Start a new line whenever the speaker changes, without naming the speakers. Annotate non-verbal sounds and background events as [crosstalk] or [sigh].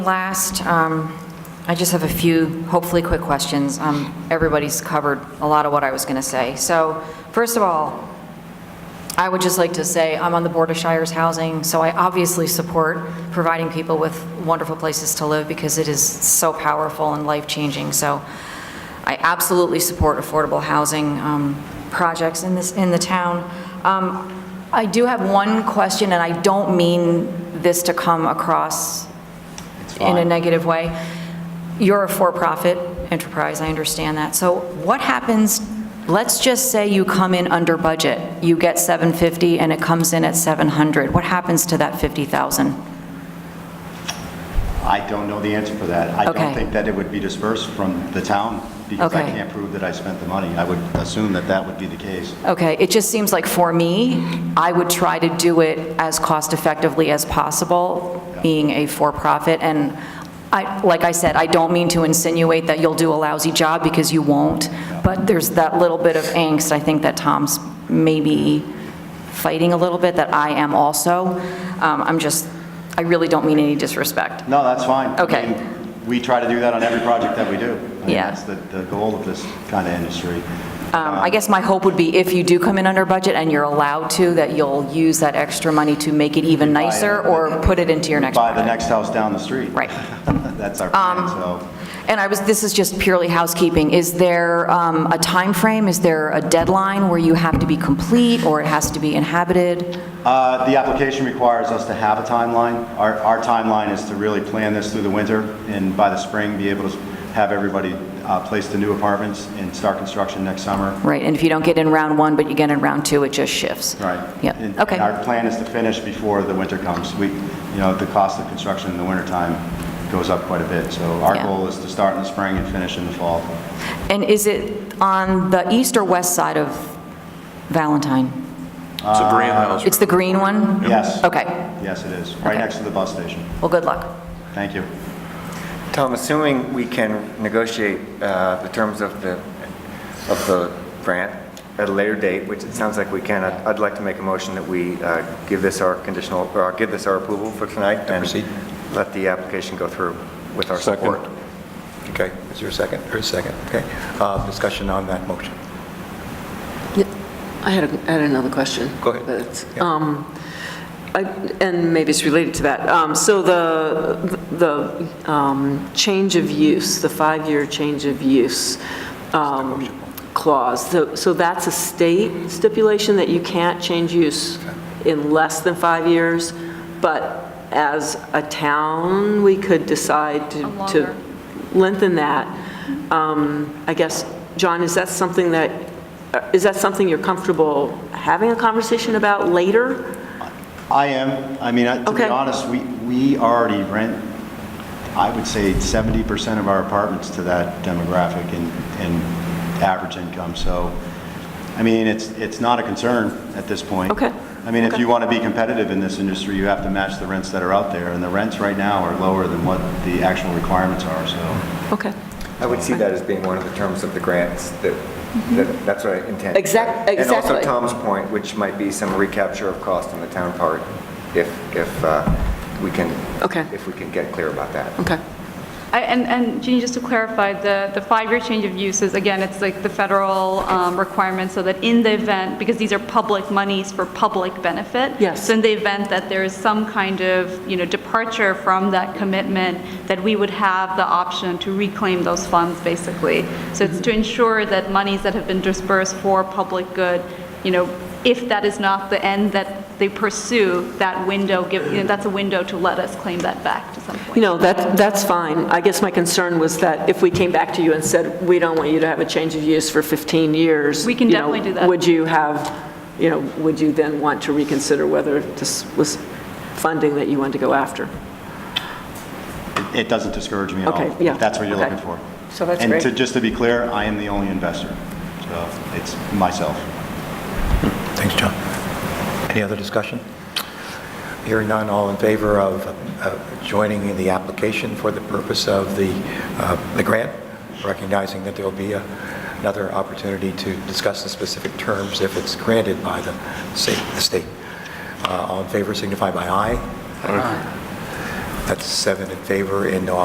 Last, um, I just have a few, hopefully, quick questions. Um, Everybody's covered a lot of what I was going to say. So first of all, I would just like to say, I'm on the Board of Shires Housing, so I obviously support providing people with wonderful places to live because it is so powerful and life-changing. So I absolutely support affordable housing um, projects in this, in the town. Um, I do have one question, and I don't mean this to come across in a negative way. You're a for-profit enterprise, I understand that. So what happens, let's just say you come in under budget, you get 750 and it comes in at 700, what happens to that 50,000?
I don't know the answer for that. I
Okay.
don't think that it would be dispersed from the town because I
Okay.
can't prove that I spent the money. I would assume that that would be the case.
Okay, it just seems like for me, I would try to do it as cost-effectively as possible, being a for-profit, and I, like I said, I don't mean to insinuate that you'll do a lousy job, because you won't, but there's that little bit of angst, I think that Tom's maybe fighting a little bit, that I am also. Um, I'm just, I really don't mean any disrespect.
No, that's fine. I
Okay.
mean, We try to do that on every project that we do. I mean,
Yeah.
That's the, the goal of this kind of industry.
Um, I guess my hope would be if you do come in under budget and you're allowed to, that you'll use that extra money to make it even
it.
nicer, or put it into your next
Buy the
project.
next house down the street.
Right.
[laughs]
Um,
That's our plan, so.
And I was, this is just purely housekeeping. Is there um, a time frame? Is there a deadline where you have to be complete or it has to be inhabited?
Uh, The application requires us to have a timeline. Our our timeline is to really plan this through the winter and by the spring, be able to have everybody uh, place the new apartments and start construction next summer.
Right, and if you don't get in round one, but you get in round two, it just shifts?
Right. And
Yep, okay,
our plan is to finish before the winter comes. We, you know, the cost of construction in the wintertime goes up quite a bit, so our
Yeah.
goal is to start in the spring and finish in the fall.
And is it on the east or west side of Valentine?
It's a brand house.
Uh, It's the green one?
Yes.
Okay,
Yes, it is, right
Okay.
next to the bus station.
well, good luck.
Thank you.
Tom, assuming we can negotiate uh, the terms of the, of the grant at a later date, which it sounds like we can, I'd I'd like to make a motion that we uh, give this our conditional, or give this our approval for tonight and let the application go through with our
Second.
support.
Okay, is there a second? There is a second, okay. Uh, Discussion on that motion.
Yeah, I had, a- I had another question.
Go ahead.
but it's-
Yeah.
um, I- And maybe it's related to that. Um, So the, the um, change of use, the five-year change of use um, clause, so so that's a state stipulation that you can't change use in less than five years, but as a town, we could decide to to lengthen that. Um, I guess, John, is that something that, uh, is that something you're comfortable having a conversation about later?
I am, I mean, I- to be
Okay.
honest, we, we already rent, I would say 70% of our apartments to that demographic and, and average income, so, I mean, it's, it's not a concern at this point.
Okay.
I mean, if
Okay.
you want to be competitive in this industry, you have to match the rents that are out there, and the rents right now are lower than what the actual requirements are, so.
Okay.
I would see that as being one of the terms of the grants, that, that- that's what I intend.
Mm-hmm. Exact-
And also
exactly.
Tom's point, which might be some recapture of cost on the town part, if, if uh, we can,
Okay.
if we can get clear about that.
Okay.
I- And, and Jeannie, just to clarify, the, the five-year change of use is, again, it's like the federal um, requirement, so that in the event, because these are public monies for public benefit.
Yes.
So in the event that there is some kind of, you know, departure from that commitment, that we would have the option to reclaim those funds, basically. So it's to ensure that monies that have been dispersed for public good, you know, if that is not the end that they pursue, that window, give, you know, that's a window to let us claim that back to some point.
You know, that, that's fine. I guess my concern was that if we came back to you and said, we don't want you to have a change of use for 15 years.
We can
you know,
definitely do that.
Would you have, you know, would you then want to reconsider whether this was funding that you wanted to go after?
it- It doesn't discourage me at all.
Okay, yeah,
if That's what you're
okay.
looking for.
So that's
And
great.
to, just to be clear, I am the only investor, so it's myself.
Thanks, John. Any other discussion? Hearing none, all in favor of uh, joining the application for the purpose of the, uh, the grant, recognizing that there'll be a- another opportunity to discuss the specific terms if it's granted by the state. the state. Uh, All in favor signify by aye. That's seven in favor and no